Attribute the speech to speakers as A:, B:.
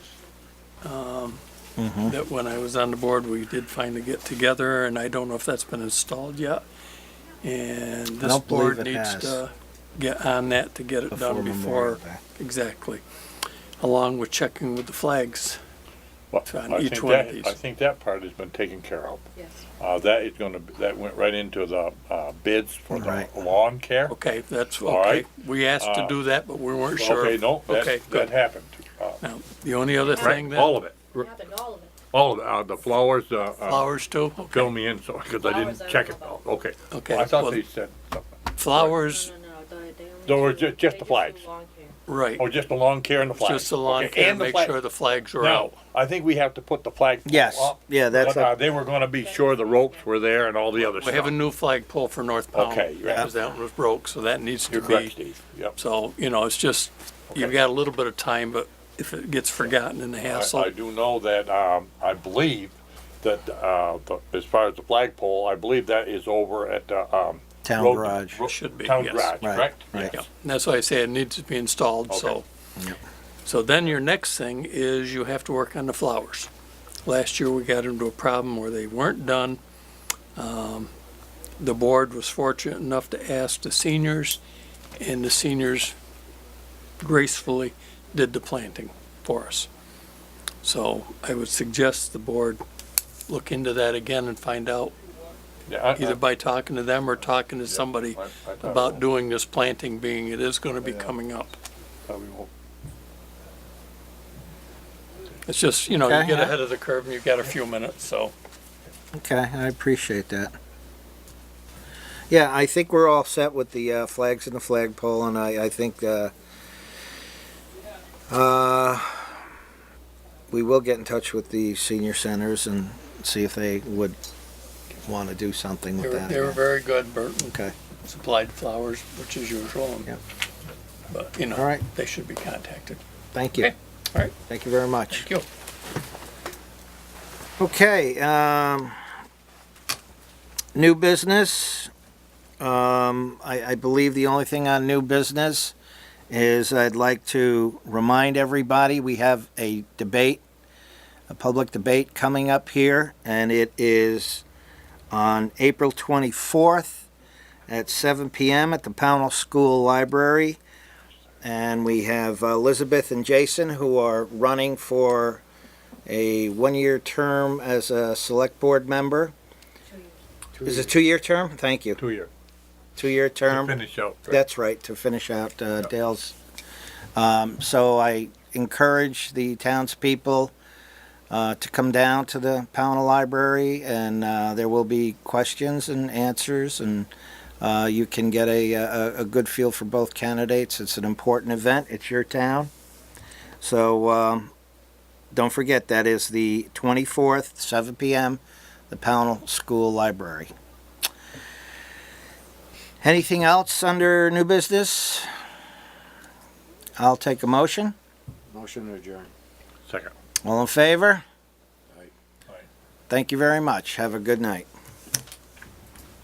A: um, that when I was on the board, we did finally get together, and I don't know if that's been installed yet. And this
B: don't believe
A: board
B: it
A: needs
B: has.
A: to get on that to get it done
B: Memorial
A: before,
B: Day.
A: exactly, along with checking with the flags.
C: Well,
A: on
C: I
A: each
C: think
A: one of
C: that-
A: these.
C: I think that part has been taken care of.
D: Yes.
C: Uh, that is gonna, be- that went right into the, uh, bids for the
B: Right.
C: lawn care.
A: Okay, that's
C: All
A: okay.
C: right.
A: We asked to
C: Uh,
A: do that, but we weren't sure.
C: Okay, no,
A: Okay,
C: that, that
A: good.
C: happened. Uh,
A: Now, the only other thing
C: Right,
A: then?
C: all of it,
D: Happened all of it.
C: all of it, uh, the flowers, uh, uh,
A: Flowers too? Okay.
C: fill me in, so, cause I
D: Flowers,
C: didn't
D: I
C: check it,
D: don't know
C: okay.
A: Okay,
C: I thought
A: well-
C: they said something,
A: Flowers,
D: No, no, no, they- they only
C: There were
D: do-
C: ju- just
D: they
C: the flags.
D: do long hair.
A: right.
C: oh, just the lawn care and the flags.
A: Just the lawn
C: Okay,
A: care,
C: and the
A: make
C: flag-
A: sure the flags are
C: Now,
A: out.
C: I think we have to put the flag.
B: Yes,
C: up.
B: yeah, that's
C: But, uh,
B: a-
C: They were gonna be sure the ropes were there and all the other
A: We
C: stuff.
A: have a new flagpole for North Pownell.
C: Okay, you're right.
A: Because that one was broke, so that needs to
C: You're correct,
A: be.
C: Steve, yep.
A: So, you know, it's just, you've
C: Okay.
A: got a little bit of time, but if it gets forgotten in the
C: I,
A: hassle,
C: I do know that, um, I believe that, uh, the, as far as the flagpole, I believe that is over at, the, um.
B: Town
C: road-
B: garage.
C: ro-
A: Should be,
C: Town
A: yes.
C: garage,
B: Right,
C: correct?
B: right.
C: Yes.
A: yeah, And that's why I say it needs to be installed, so.
C: Okay.
A: So then your next thing is you have to work on the flowers. Last year, we got into a problem where they weren't done. Um, The board was fortunate enough to ask the seniors, and the seniors gracefully did the planting for us. So I would suggest the board look into that again and find out,
C: Yeah, I- I-
A: either by talking to them or talking to somebody
C: I- I thought
A: about
C: we-
A: doing this planting, being it is gonna be
C: Yeah.
A: coming up.
C: thought we won't-
A: It's just, you know, you
B: Okay,
A: get
B: yeah.
A: ahead of the curve and you've got a few minutes, so.
B: Okay, I appreciate that. Yeah, I think we're all set with the uh, flags and the flagpole, and I, I think uh, uh, we will get in touch with the senior centers and see if they would want to do something
A: They
B: with
A: were,
B: that.
A: they were
B: again.
A: very good. Burton
B: Okay,
A: supplied flowers, which is usual. and-
B: Yeah.
A: But, you
B: All
A: know,
B: right.
A: they should be contacted.
B: thank you.
A: Okay, all right.
B: Thank you very much.
A: Thank you.
B: Okay, um, new business. Um, I, I believe the only thing on new business is I'd like to remind everybody, we have a debate, a public debate coming up here, and it is on April twenty-fourth at seven PM at the Pownell School Library. And we have Elizabeth and Jason who are running for a one-year term as a select board member. Is it two-year term? Thank you.
C: Two year,
B: Two-year
C: to
B: term.
C: finish out. right?
B: That's right, to finish out uh, Dale's. Um, So I encourage the townspeople uh, to come down to the Pownell Library, and uh, there will be questions and answers, and uh, you can get a, a, a good feel for both candidates. It's an important event. It's your town. So um, don't forget, that is the 24th, 7 p.m., the Pownell School Library. Anything else under new business? I'll take a motion.
E: Motion to adjourn.
C: Second.
B: All in favor?
E: Aye.
C: Aye.
B: Thank you very much. Have a good night.